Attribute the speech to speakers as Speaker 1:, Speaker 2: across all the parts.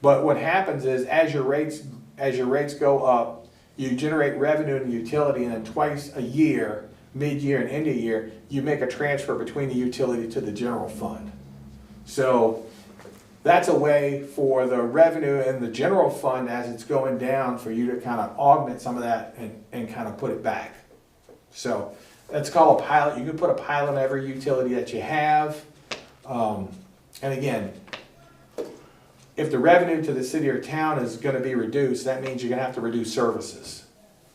Speaker 1: But what happens is, as your rates, as your rates go up, you generate revenue in the utility, and then twice a year, mid-year and end of year, you make a transfer between the utility to the general fund. So that's a way for the revenue in the general fund, as it's going down, for you to kind of augment some of that and, and kind of put it back. So that's called a pilot. You can put a pilot in every utility that you have. Um, and again, if the revenue to the city or town is gonna be reduced, that means you're gonna have to reduce services.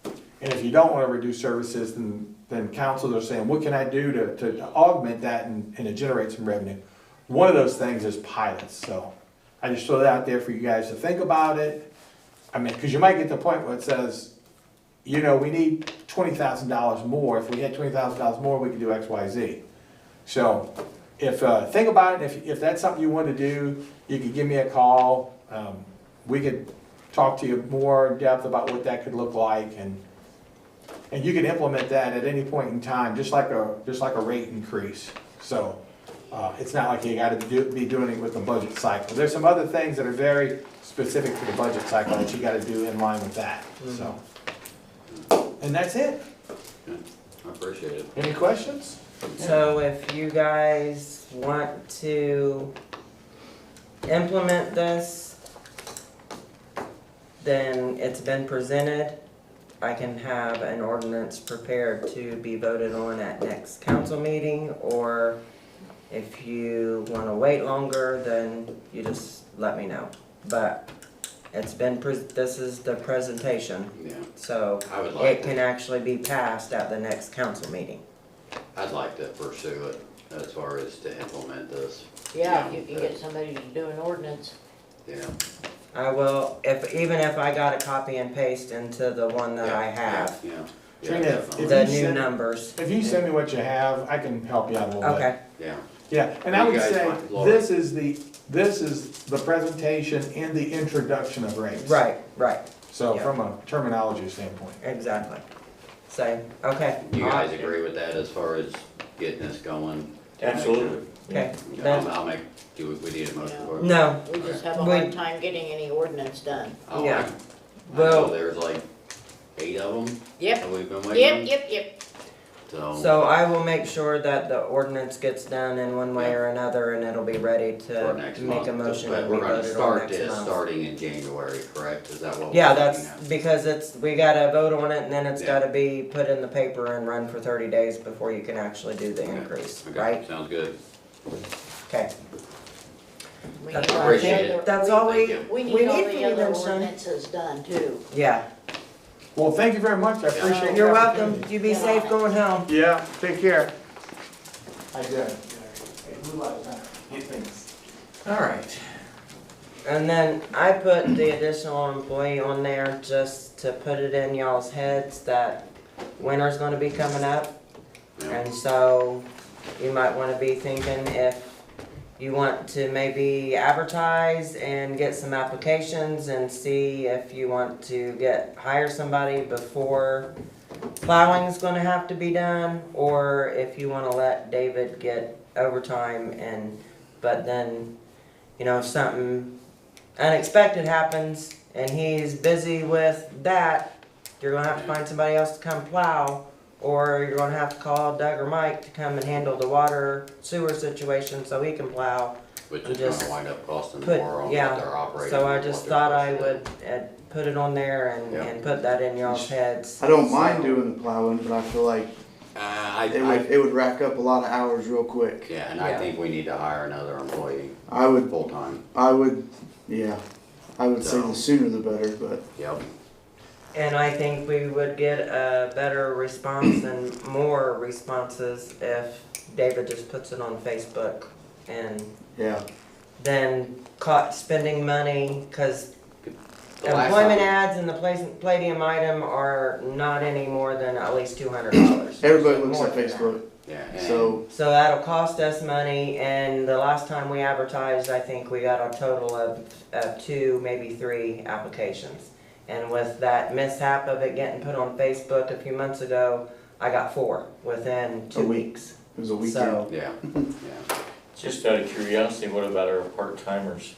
Speaker 1: And if you don't wanna reduce services, then, then councils are saying, what can I do to, to augment that and, and to generate some revenue? One of those things is pilots, so I just throw that out there for you guys to think about it. I mean, cause you might get to the point where it says, you know, we need twenty thousand dollars more, if we had twenty thousand dollars more, we could do X, Y, Z. So if, uh, think about it, if, if that's something you want to do, you could give me a call. Um, We could talk to you more in depth about what that could look like and, and you can implement that at any point in time, just like a, just like a rate increase. So, uh, it's not like you gotta do, be doing it with the budget cycle. There's some other things that are very specific to the budget cycle that you gotta do in line with that, so. And that's it.
Speaker 2: Yeah, I appreciate it.
Speaker 1: Any questions?
Speaker 3: So if you guys want to implement this, then it's been presented. I can have an ordinance prepared to be voted on at next council meeting, or if you wanna wait longer, then you just let me know. But it's been, pres- this is the presentation,
Speaker 2: Yeah,
Speaker 3: so
Speaker 2: I would
Speaker 3: it
Speaker 2: like,
Speaker 3: can
Speaker 2: to-
Speaker 3: actually be passed at the next council meeting.
Speaker 2: I'd like to pursue it as far as to implement this,
Speaker 4: Yeah, if you can get somebody to do an ordinance.
Speaker 2: you know.
Speaker 3: I will, if, even if I got a copy and paste into the one that Uh, I have,
Speaker 2: Yeah, yeah,
Speaker 1: Trina,
Speaker 2: definitely.
Speaker 1: If
Speaker 3: the
Speaker 1: you
Speaker 3: new
Speaker 1: send-
Speaker 3: numbers.
Speaker 1: If you send me what you have, I can help you out a little bit.
Speaker 3: Okay,
Speaker 2: yeah,
Speaker 1: Yeah, and I
Speaker 2: You
Speaker 1: would
Speaker 2: guys
Speaker 1: say,
Speaker 2: want Laura.
Speaker 1: this is the, this is the presentation and the introduction of rates.
Speaker 3: right, right,
Speaker 1: So
Speaker 3: yeah.
Speaker 1: from a terminology standpoint.
Speaker 3: exactly. Same, okay.
Speaker 2: you guys
Speaker 3: Uh,
Speaker 2: agree with that as far as getting this going?
Speaker 5: Absolutely.
Speaker 3: Okay,
Speaker 2: You know, I'll
Speaker 3: then,
Speaker 2: I'll make, do we, we need a motion for it?
Speaker 3: no,
Speaker 4: We just have a
Speaker 3: Would-
Speaker 4: hard time getting any ordinance done.
Speaker 2: I'll
Speaker 3: yeah.
Speaker 2: make- I
Speaker 3: Well-
Speaker 2: know there's like eight of them
Speaker 4: Yep,
Speaker 2: that we've been
Speaker 4: yep,
Speaker 2: waiting on,
Speaker 4: yep, yep.
Speaker 2: so
Speaker 3: so
Speaker 2: Um,
Speaker 3: I will make sure that the ordinance gets done in one way or another and it'll be ready
Speaker 2: for
Speaker 3: to
Speaker 2: next
Speaker 3: make
Speaker 2: month.
Speaker 3: a motion
Speaker 2: But
Speaker 3: and be
Speaker 2: we're gonna
Speaker 3: voted on
Speaker 2: start
Speaker 3: next
Speaker 2: this
Speaker 3: month.
Speaker 2: starting in January, correct? Is that what? we're
Speaker 3: Yeah,
Speaker 2: looking
Speaker 3: that's,
Speaker 2: at?
Speaker 3: because it's, we gotta vote on it and then it's
Speaker 2: Yeah.
Speaker 3: gotta be put in the paper and run for thirty days before you can actually do the
Speaker 2: Okay,
Speaker 3: increase,
Speaker 2: okay,
Speaker 3: right?
Speaker 2: Sounds good.
Speaker 3: Okay,
Speaker 4: We
Speaker 3: That's
Speaker 4: need all the
Speaker 2: appreciate it.
Speaker 4: other-
Speaker 3: that's all
Speaker 2: Thank
Speaker 3: we,
Speaker 2: you.
Speaker 4: We
Speaker 3: we
Speaker 4: need all
Speaker 3: need from
Speaker 4: the
Speaker 3: you
Speaker 4: other
Speaker 3: then, Sean.
Speaker 4: ordinances done too.
Speaker 3: yeah.
Speaker 1: Well, thank you very much, I appreciate it.
Speaker 3: You're welcome. You be
Speaker 4: Yeah.
Speaker 3: safe going home.
Speaker 1: Yeah, take care. I did. Thanks.
Speaker 3: All right. And then I put the additional employee on there just to put it in y'all's heads that winter's gonna be coming up.
Speaker 2: Yeah.
Speaker 3: And so you might wanna be thinking if you want to maybe advertise and get some applications and see if you want to get, hire somebody before plowing's gonna have to be done, or if you wanna let David get overtime and, but then, you know, if something unexpected happens and he's busy with that, you're gonna have to find somebody else to come plow, or you're gonna have to call Doug or Mike to come and handle the water sewer situation so he can plow.
Speaker 2: Which is
Speaker 3: Just
Speaker 2: gonna wind up costing
Speaker 3: put-
Speaker 2: more on what
Speaker 3: yeah,
Speaker 2: they're operating.
Speaker 3: So I
Speaker 2: and what
Speaker 3: just
Speaker 2: they're
Speaker 3: thought I
Speaker 2: supposed to do.
Speaker 3: would uh, put it on there and,
Speaker 2: Yeah.
Speaker 3: and put that in y'all's heads.
Speaker 5: I don't mind
Speaker 3: So-
Speaker 5: doing the plowing, but I feel like
Speaker 2: Uh, I,
Speaker 5: it would,
Speaker 2: I,
Speaker 5: it would rack up a lot of hours real quick.
Speaker 2: yeah, and I
Speaker 3: Yeah.
Speaker 2: think we need to hire another employee
Speaker 5: I would,
Speaker 2: full-time,
Speaker 5: I would, yeah, I would say
Speaker 2: No.
Speaker 5: the sooner the better, but
Speaker 2: yep.
Speaker 3: And I think we would get a better response and more responses if David just puts it on Facebook and
Speaker 5: yeah.
Speaker 3: then caught spending money because
Speaker 2: The last
Speaker 3: employment
Speaker 2: time-
Speaker 3: ads and the pla- Palladium item are not any more than at least two hundred dollars.
Speaker 5: Everybody looks
Speaker 3: More
Speaker 5: at
Speaker 3: than that.
Speaker 5: Facebook,
Speaker 2: Yeah, and
Speaker 5: so
Speaker 3: So that'll cost us money, and the last time we advertised, I think we got a total of, of two, maybe three applications. And with that mishap of it getting put on Facebook a few months ago, I got four within two
Speaker 5: A week.
Speaker 3: weeks.
Speaker 5: it was a weekend.
Speaker 3: So,
Speaker 2: yeah, yeah.
Speaker 6: Just out of curiosity, what about our part timers?